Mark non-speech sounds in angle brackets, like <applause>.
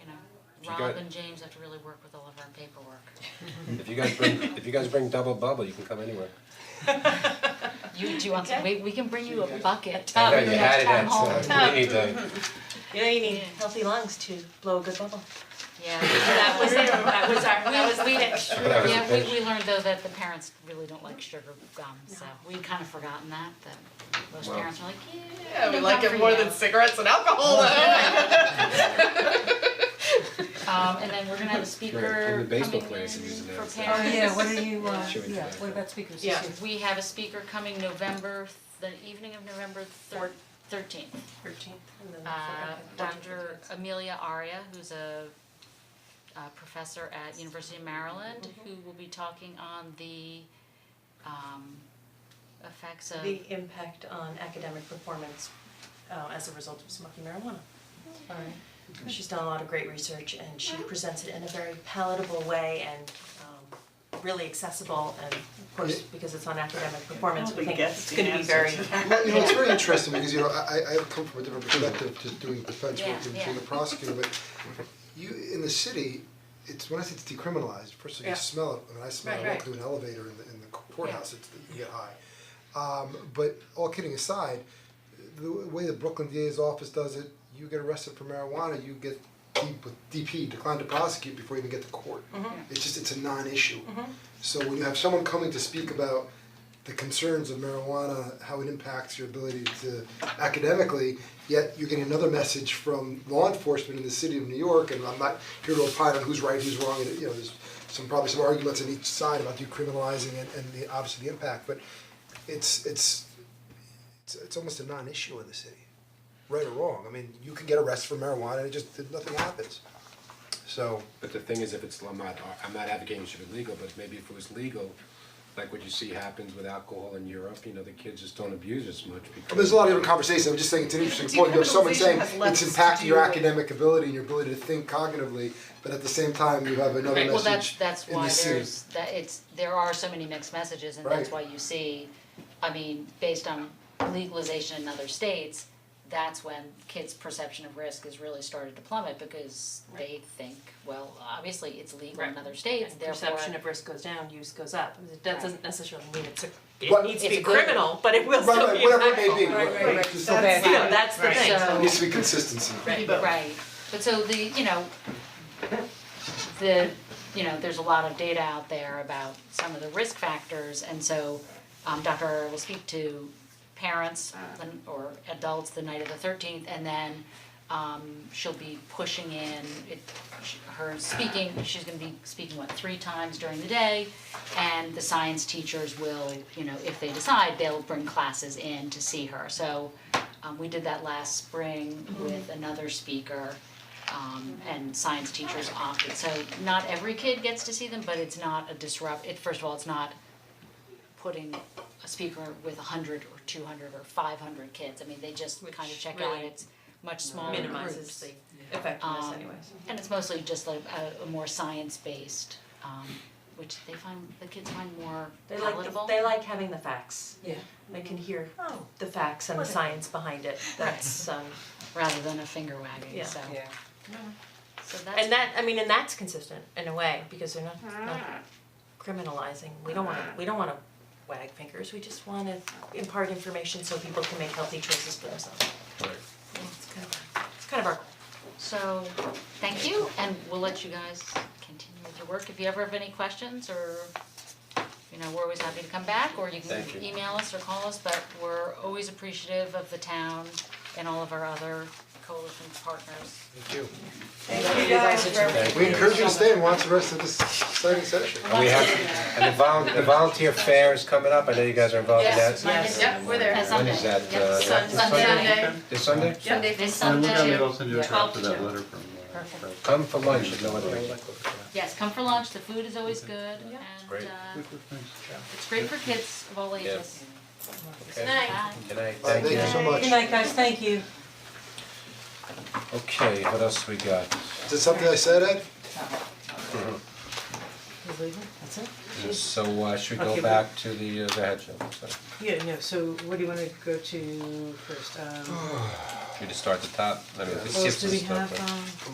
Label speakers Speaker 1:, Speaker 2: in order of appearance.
Speaker 1: If you
Speaker 2: Rob
Speaker 1: got-
Speaker 2: and James have to really work with all of our
Speaker 3: <laughs>
Speaker 2: paperwork.
Speaker 1: If you guys bring, if you guys bring double bubble, you can come anywhere.
Speaker 2: You do want some, we we can bring you a bucket.
Speaker 1: I know
Speaker 2: Um,
Speaker 1: you had it
Speaker 2: town
Speaker 1: at,
Speaker 2: hall.
Speaker 1: uh, we need to,
Speaker 4: You know, you need
Speaker 2: Yeah.
Speaker 4: healthy lungs to blow a good bubble.
Speaker 3: <laughs>
Speaker 2: Yeah.
Speaker 3: That was it, that was our, that was the
Speaker 2: We,
Speaker 3: pitch.
Speaker 1: That was a
Speaker 2: yeah,
Speaker 1: pitch.
Speaker 2: we we learned though that the parents really don't like sugar gum, so we kind of forgotten that, that most
Speaker 1: Wow.
Speaker 2: parents are like, yeah.
Speaker 5: Yeah, we
Speaker 2: no
Speaker 5: like
Speaker 2: gum
Speaker 5: it
Speaker 2: for
Speaker 5: more
Speaker 2: you."
Speaker 5: than cigarettes and alcohol though.
Speaker 2: Um, and then we're gonna
Speaker 1: <laughs>
Speaker 2: have a
Speaker 1: Right,
Speaker 2: speaker
Speaker 1: and the baseball
Speaker 2: coming in
Speaker 1: players are using that
Speaker 2: for
Speaker 1: as
Speaker 2: parents.
Speaker 1: a-
Speaker 6: Oh, yeah, what are you, uh,
Speaker 1: Should we
Speaker 6: yeah,
Speaker 1: do that?
Speaker 6: what about speakers this year?
Speaker 5: Yeah.
Speaker 2: We have a speaker coming November, the evening of November thir- thirteenth.
Speaker 4: Thirteenth.
Speaker 2: Uh, Dr. Amelia Aria, who's a uh professor at University of Maryland,
Speaker 4: Mm-hmm.
Speaker 2: who will be talking on the um effects of
Speaker 4: The impact on academic performance uh, as a result of smoking marijuana. Alright. She's done a lot of great research and she presents it in a very palatable way and um, really accessible and of course, because it's on academic performance, we think it's gonna be very
Speaker 7: Well, you know,
Speaker 5: <laughs>
Speaker 7: it's very interesting because, you know, I I I come from a different perspective, just doing defense
Speaker 2: Yeah,
Speaker 7: work and being
Speaker 2: yeah.
Speaker 7: a prosecutor, but you, in the city, it's, when I say it's decriminalized, first of all,
Speaker 5: Yeah.
Speaker 7: you smell it, when I smell
Speaker 5: Right,
Speaker 7: it, I walk
Speaker 5: right.
Speaker 7: through an elevator in the in the courthouse, it's, you get high. Um but all kidding aside, the way the Brooklyn DA's office does it, you get arrested for marijuana, you get deep with DP, declined to prosecute before you even get to court.
Speaker 5: Mm-hmm.
Speaker 7: It's just, it's a non-issue. So when you have someone coming to speak about the concerns of marijuana, how it impacts your ability to academically, yet you're getting another message from law enforcement in the city of New York, and I'm not here to opine on who's right, who's wrong, and you know, there's some, probably some arguments on each side about decriminalizing and and the, obviously the impact, but it's, it's, it's, it's almost a non-issue in the city, right or wrong, I mean, you can get arrested for marijuana, and it just, nothing happens. So,
Speaker 1: but the thing is, if it's, I'm not, I'm not advocating it should be legal, but maybe if it was legal, like what you see happens with alcohol in Europe, you know, the kids just don't abuse as much because.
Speaker 7: Well, there's a lot of different conversations, I'm just saying it's an interesting point, you have someone
Speaker 5: Decriminalization
Speaker 7: saying
Speaker 5: has
Speaker 7: it's
Speaker 5: less to
Speaker 7: impacting
Speaker 5: do
Speaker 7: your
Speaker 5: with-
Speaker 7: academic ability and your ability to think cognitively, but at the same time, you have another
Speaker 2: Well, that's
Speaker 7: message
Speaker 2: that's
Speaker 7: in the
Speaker 2: why
Speaker 7: city.
Speaker 2: there's that it's there are so many mixed messages and that's why
Speaker 7: Right.
Speaker 2: you see, I mean, based on legalization in other states, that's when kids' perception of risk has really started to plummet because they think, well, obviously it's legal in
Speaker 4: Right.
Speaker 2: other states,
Speaker 4: And
Speaker 2: therefore
Speaker 4: perception of risk goes down, use goes up. That
Speaker 2: Right.
Speaker 4: doesn't necessarily mean it's a,
Speaker 7: But
Speaker 4: it needs to
Speaker 2: it's
Speaker 4: be
Speaker 2: a good-
Speaker 4: criminal, but it will
Speaker 7: Right,
Speaker 4: still be
Speaker 7: right,
Speaker 4: impactful.
Speaker 7: whatever it may be,
Speaker 5: Right,
Speaker 7: right,
Speaker 5: right,
Speaker 7: just
Speaker 5: right.
Speaker 7: so bad.
Speaker 4: You know, that's the thing.
Speaker 2: So-
Speaker 7: There needs to be consistency.
Speaker 4: Right.
Speaker 2: Right, but so the, you know, the, you know, there's a lot of data out there about some of the risk factors, and so um Dr. Arora will speak to parents and- or adults the night of the thirteenth, and then um she'll be pushing in, it, sh- her speaking, she's gonna be speaking, what, three times during the day? And the science teachers will, you know, if they decide, they'll bring classes in to see her, so um we did that last spring
Speaker 4: Mm-hmm.
Speaker 2: with another speaker um and science teachers opted, so not every kid gets to see them, but it's not a disrupt, it, first of all, it's not putting a speaker with hundred or two hundred or five hundred kids, I mean, they just kind of check out,
Speaker 4: really
Speaker 2: it's much smaller groups.
Speaker 4: minimizes the effectiveness
Speaker 2: Um,
Speaker 4: anyways.
Speaker 2: And it's mostly just like a a more science-based, um which they find, the kids find more
Speaker 4: They like,
Speaker 2: palatable.
Speaker 4: the- they like having the facts.
Speaker 6: Yeah.
Speaker 4: They can hear
Speaker 6: Oh.
Speaker 4: the facts and the
Speaker 6: Whatever.
Speaker 4: science behind it, that's um,
Speaker 2: Rather than a finger wagging,
Speaker 4: Yeah.
Speaker 2: so,
Speaker 6: Yeah.
Speaker 2: so that's,
Speaker 4: and that, I mean, and that's consistent in a way, because they're not, not criminalizing, we don't wanna, we don't wanna wag fingers, we just wanna impart information so people can make healthy choices for themselves.
Speaker 1: Right.
Speaker 4: It's kind of, it's kind of our,
Speaker 2: so, thank you, and we'll let you guys continue with your work, if you ever have any questions, or, you know, we're always happy to come back, or you can
Speaker 1: Thank you.
Speaker 2: email us or call us, but we're always appreciative of the town and all of our other coalition partners.
Speaker 7: Thank you.
Speaker 3: Thank you guys for
Speaker 7: We encourage you to stay and watch the rest of this exciting session.
Speaker 1: And we have, and the volun- the volunteer fair is coming up, I know you guys are involved in that.
Speaker 3: Yes, mine is- yep, we're there.
Speaker 2: Uh, Sunday.
Speaker 1: When is that,
Speaker 2: Yep.
Speaker 1: uh,
Speaker 3: Sun-
Speaker 1: this Sunday?
Speaker 3: Sunday,
Speaker 1: This Sunday?
Speaker 3: Sunday.
Speaker 2: This
Speaker 8: I'm
Speaker 2: Sunday.
Speaker 8: looking at it, I'll send you a
Speaker 3: Twelve
Speaker 8: copy of
Speaker 3: to
Speaker 8: that
Speaker 3: two.
Speaker 8: letter from uh,
Speaker 2: Perfect.
Speaker 8: Fred.
Speaker 1: Come for lunch, no other
Speaker 2: Yes, come for lunch, the food is always good, and
Speaker 1: Mm-hmm. Great.
Speaker 2: uh,
Speaker 8: Good, good, thanks.
Speaker 2: it's great for kids of all ages.
Speaker 1: Okay.
Speaker 3: Night.
Speaker 2: Bye.
Speaker 1: Good night,
Speaker 7: Uh,
Speaker 1: thank you.
Speaker 7: Thank you so much.
Speaker 6: Good night, guys, thank you.
Speaker 1: Okay, what else we got?
Speaker 7: Is it something I said, Ed?
Speaker 4: he's leaving, that's it?
Speaker 1: So uh should we
Speaker 9: Okay,
Speaker 1: go
Speaker 9: but-
Speaker 1: back to the uh the head show, so
Speaker 9: Yeah, no, so what do you wanna go to first, um,
Speaker 1: Oh, we just start at the top, let me
Speaker 9: what
Speaker 1: just skip
Speaker 9: else
Speaker 1: some
Speaker 9: do we
Speaker 1: stuff,
Speaker 9: have,
Speaker 1: right?
Speaker 9: um?